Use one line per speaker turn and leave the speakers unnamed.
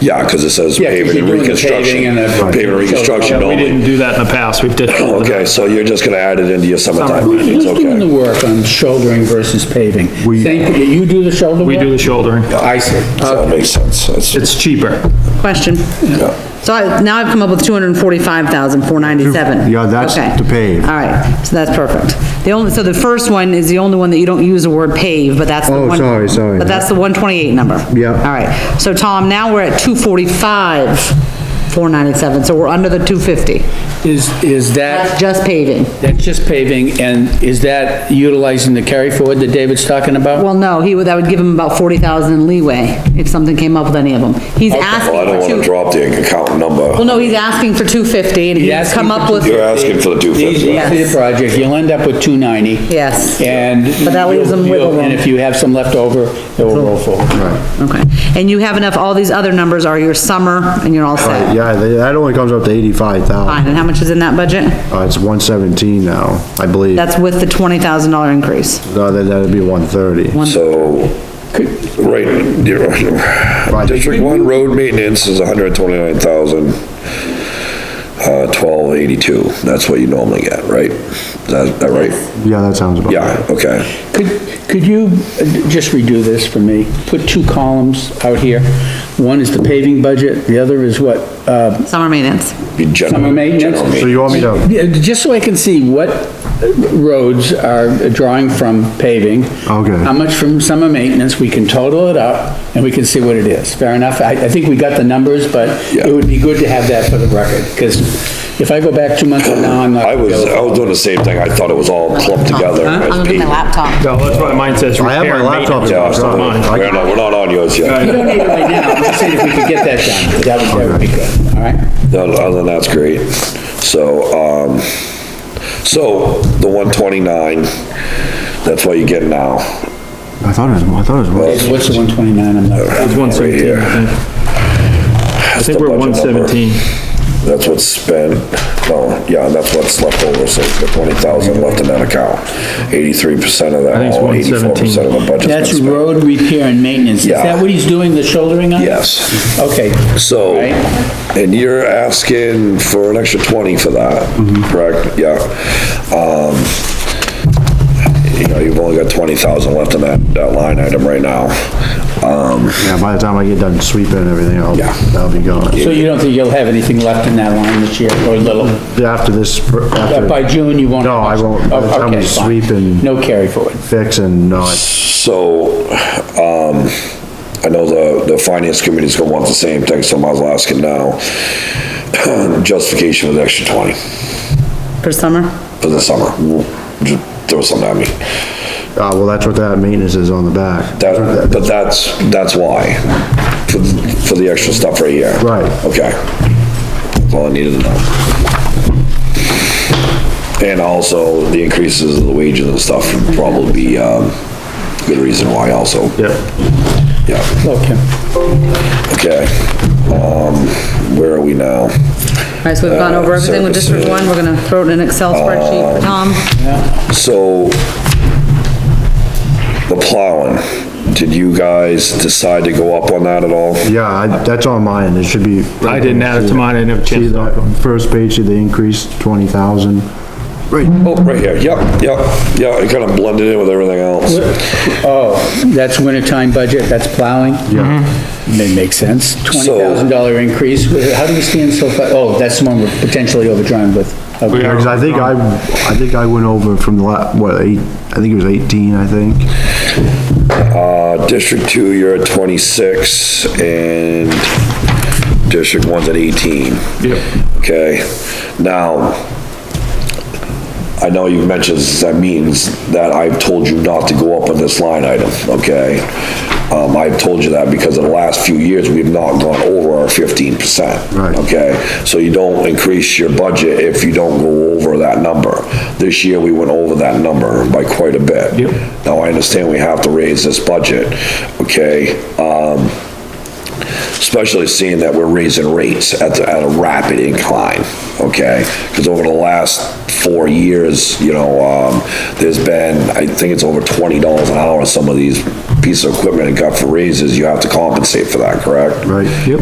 Yeah, because it says
Yeah, 'cause
paving and
you're doing the
reconstruction.
paving and the-
Paving and reconstruction
We didn't
only.
do that in the past, we've did.
Okay, so you're just gonna add it into your summertime meetings,
Who's doing the
okay?
work on shouldering versus paving? Same, you do the shoulder work?
We do the shouldering.
I see.
So that makes sense, that's,
It's cheaper.
Question.
yeah.
So I, now I've come up with two hundred and forty-five thousand, four ninety-seven.
Yeah, that's to pave.
All right, so that's perfect. The only, so the first one is the only one that you don't use the word pave, but that's the
Oh,
one.
sorry, sorry.
But that's the one twenty-eight number.
Yeah.
All right, so Tom, now we're at two forty-five, four ninety-seven, so we're under the two fifty.
Is, is that,
That's just paving.
that's just paving, and is that utilizing the carry forward that David's talking about?
Well, no, he would, that would give him about forty thousand in leeway if something came up with any of them. He's
Well, I
asking
don't
for
wanna
two,
drop the account
well,
number.
no, he's asking for two fifty and he's
asking
come
for
up with,
You're asking for the two
These,
fifty,
these
right?
are the project, you'll end up with two ninety.
yes.
And.
But that leaves them wiggle
you'll- And
room.
if you have some left over, it will roll forward.
Okay, and you have enough, all these other numbers are your summer, and you're all
Right,
set.
Yeah, that that only comes up to eighty-five
Fine,
thousand.
and how much is in that budget?
Uh, it's one seventeen now, I believe.
That's with the twenty thousand dollar increase.
Uh, that- that'd be one thirty.
So, right, you're right, District One road maintenance is hundred twenty-nine thousand, uh, twelve eighty-two, that's what you normally get, right? Is that, that right?
Yeah, that sounds about right.
Yeah, okay,
Could, could you uh, just redo this for me? Put two columns out here. One is the paving budget, the other is what, uh,
Summer maintenance.
be general.
Summer maintenance?
general
So
So you want me to,
yeah, just so I can see what roads are drawing from paving.
Okay.
How much from summer maintenance, we can total it up, and we can see what it is. Fair enough? I, I think we got the numbers, but
Yeah.
it would be good to have that for the record, because if I go back two months from now, I'm not.
I was, I was doing the same thing, I thought it was all clumped together.
I'm
as
gonna get my
people.
laptop.
No, that's why mine says
I have my
repair and
laptop.
maintenance.
Yeah,
It's
so-
not mine. I-
we're not, we're not on yours
You
yet,
don't need it right now. I'm just saying if we could get that done, that would, that would be good, all right?
No, no, other than that's great, so, um, so, the one twenty-nine, that's what you get now.
I thought it was, I thought it was,
What's the 129? I'm not.
It's one seventeen, I think. I think we're one seventeen.
That's what's spent, no, yeah, that's what's left over, so the twenty thousand left in that account. Eighty-three percent of that,
think it's
eighty-four percent of the budget's been
That's
spent.
road repair and maintenance. Is
Yeah.
that what he's doing, the shouldering on?
Yes,
Okay,
so,
Right.
and you're asking for an extra twenty for that, correct? Yeah. Um, you know, you've only got twenty thousand left in that, that line item right now. Um,
yeah, by the time I get done sweeping and everything, I'll,
Yeah.
that'll be gone.
so you don't think you'll have anything left in that line this year, or little?
After this,
Uh, By
after
June, you won't? Oh,
No, I won't. By the time we
Okay, fine.
sweep and-
No carry forward.
fix and not,
So, um, I know the, the finance committee's gonna want the same thing, so I might as well ask it now. Justification was extra twenty
For summer?
for the summer. Just Throw something at me.
uh, well, that's what that maintenance is on the back.
That, but that's, that's why, for, for the extra stuff right here.
Right.
Okay. That's all I needed to know. And also, the increases of the wages and stuff would probably be, um, good reason why also.
Yep.
Yeah.
Okay.
Okay, um, where are we now?
All right, so we've gone
Uh,
over everything with District One, we're gonna throw it in an Excel spreadsheet for Tom.
So, the plowing, did you guys decide to go up on that at all?
Yeah, I- that's on mine, it should be.
I didn't add it to mine, I didn't have a
See
chance.
the first page, see the increase, twenty thousand.
Oh, right here, yep, yep, yeah, it kinda blended in with everything else.
Oh, that's wintertime budget, that's plowing? Yeah. That makes sense. $20,000 increase. How do we stand so far? Oh, that's the one we're potentially overdrawn with. Okay.
Because I think I, I think I went over from the la, what, eight, I think it was eighteen, I think.
Uh, District Two, you're at twenty-six, and District One's at eighteen.
Yep.
Okay, now, I know you've mentioned this, that means that I've told you not to go up on this line item, okay? Um, I've told you that because in the last few years, we've not gone over our fifteen percent.
Right.
Okay, so you don't increase your budget if you don't go over that number. This year, we went over that number by quite a bit.
Yep.
Now, I understand we have to raise this budget, okay? Um, especially seeing that we're raising rates at, the- at a rapid incline, okay? Because over the last four years, you know, um, there's been, I think it's over twenty dollars an hour, some of these pieces of equipment and got for raises, you have to compensate for that, correct?
Right, yep.